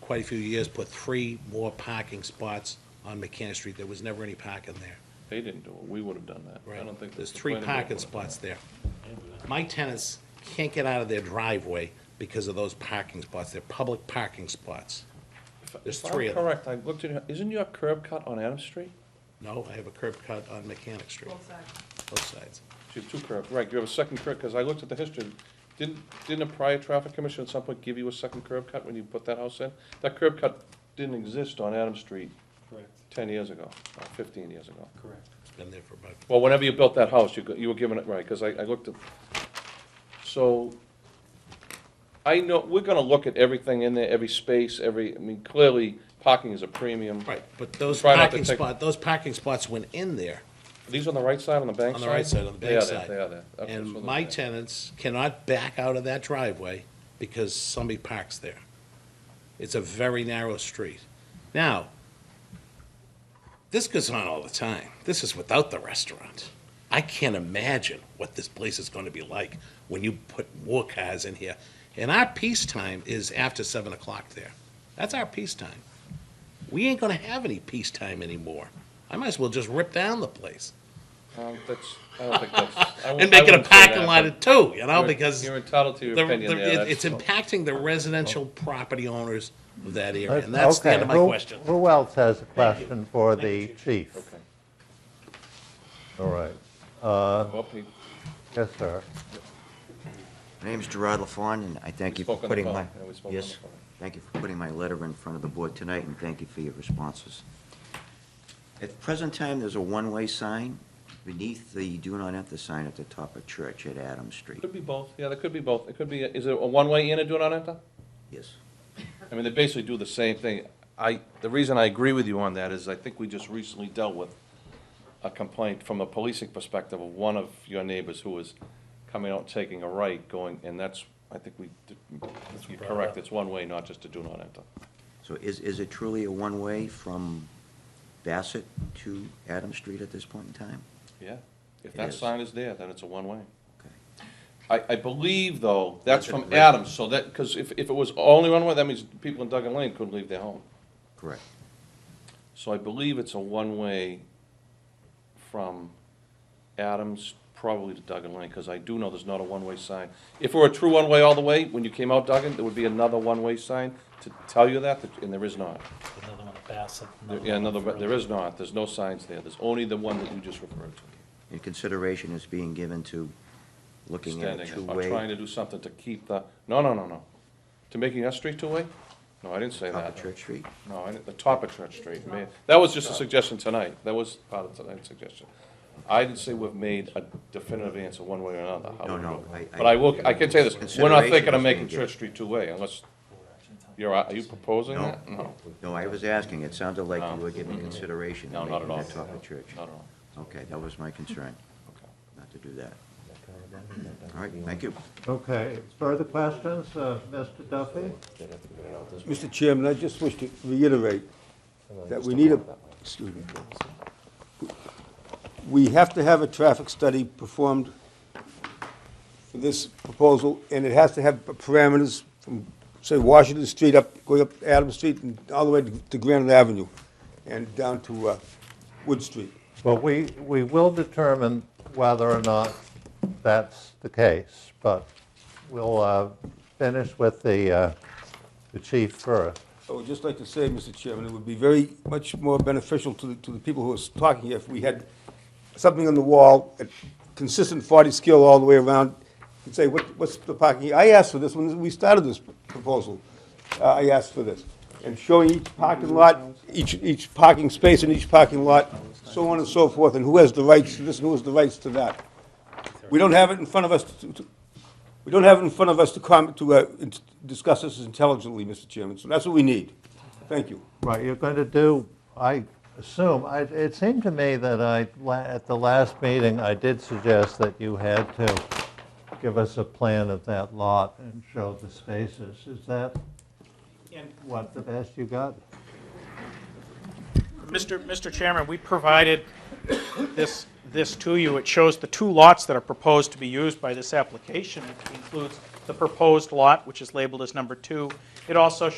quite a few years, put three more parking spots on Mechanic Street. There was never any parking there. They didn't do it, we would have done that. I don't think. There's the three planning board parking would've. spots there. My tenants can't get out of their driveway because of those parking spots. They're public parking spots. If- there's if I'm three of them. Correct, I looked at, it, isn't your curb cut on Adams Street? No, I have a curb cut on Mechanic Street, Both sides. both sides. You have two curb, right, you have a second curb, because I looked at the history. Didn't, didn't a prior traffic commission at some point give you a second curb cut when you put that house in? That curb cut didn't exist on Adams Street Correct, ten years ago, or fifteen years ago. correct. It's been there for about, Well, whenever you built that house, you, go- you were given it, right, because I, I looked at, so, I know, we're gonna look at everything in there, every space, every, I mean, clearly, parking is a premium. right, but those Try not to parking take- spot, those parking spots went in there. Are These on the right side, on the bank On side? the right side, on the They are bank there, side. They are there. Okay, so And they're my there. tenants cannot back out of that driveway because somebody parks there. It's a very narrow street. Now, this goes on all the time. This is without the restaurant. I can't imagine what this place is gonna be like when you put more cars in here. And our peace time is after seven o'clock there. That's our peace time. We ain't gonna have any peace time anymore. I might as well just rip down the place Um, that's, I don't think that's. I wou- and I make it a wouldn't say parking that, lot but at two, you know, you're- because You're entitled to your the- opinion the- it- there. it's that's- impacting the residential property owners of that area, and that's the Uh, Okay, end of my who- question. Who else has a question for the chief? Okay. All right, Go up, he yes, sir. My name's Gerard LaFawn, and I thank you for spoke on the putting phone. my... Yeah, we spoke on the Yes, phone. thank you for putting my letter in front of the board tonight, and thank you for your responses. At present time, there's a one-way sign beneath the do not enter sign at the top of Church at Adams Street. Could be both, yeah, there could be both. It could be, is it a one-way in and do it on enter? Yes. I mean, they basically do the same thing. I, the reason I agree with you on that is I think we just recently dealt with a complaint from a policing perspective of one of your neighbors who was coming out, taking a right, going, and that's, I think we, did- you're correct, it's one way, not just to do not enter. So is, is it truly a one-way from Bassett to Adams Street at this point in time? Yeah, if It that is. sign is there, then it's a one-way. Okay. I, I believe, though, that's from Right. Adams, so that, because if, if it was only one-way, that means people in Duggan Lane couldn't leave their home. Correct. So I believe it's a one-way from Adams probably to Duggan Lane, because I do know there's not a one-way sign. If it were a true one-way all the way, when you came out Duggan, there would be another one-way sign to tell you that, that- and there is not. Another one at Bassett. There- Yeah, another, but there is not, there's no signs there, there's only the one that you just referred to. And consideration is being given to looking at a Standing, I'm trying two-way to do something to keep the, no, no, no, no. To making that street two-way? No, I didn't say top of that. Church Street? No, I didn't- the top of Church Street. May- That was just a suggestion tonight. That was part of tonight's suggestion. I didn't say we've made a definitive answer one way or another. how No, we no, vote. I- But I will, I can tell you this, we're not thinking Consideration of is making being given. Church Street two-way unless, you're, are you proposing No. that? No, No, I was asking, it sounded like No. you were giving consideration No, to not at making all. that top of church. not at all. Okay, that was my concern, Okay. not to do that. All right, thank you. Okay, further questions, uh, Mr. Duffy? Mr. Chairman, I just wish to reiterate that we need a, excuse me. We have to have a traffic study performed for this proposal, and it has to have parameters from, say, Washington Street up, going up Adams Street and all the way to Granite Avenue and down to uh, Wood Street. Well, we, we will determine whether or not that's the case, but we'll uh, finish with the, uh, the chief first. I would just like to say, Mr. Chairman, it would be very much more beneficial to the, to the people who are talking here if we had something on the wall, a consistent 40 scale all the way around, and say, what, what's the parking? I asked for this when we started this proposal. Uh, I asked for this. And showing each parking lot, each, each parking space in each parking lot, so on and so forth, and who has the rights to this and who has the rights to that. We don't have it in front of us to, to- we don't have it in front of us to comment, to, uh, in- discuss this intelligently, Mr. Chairman, so that's what we need. Thank you. Right, you're going to do, I assume, I, it seemed to me that I, la- at the last meeting, I did suggest that you had to give us a plan of that lot and show the spaces. Is that what, the best you got? Mr. Mr. Chairman, we provided this, this to you. It shows the two lots that are proposed to be used by this application. It includes the proposed lot, which is labeled as number two. It also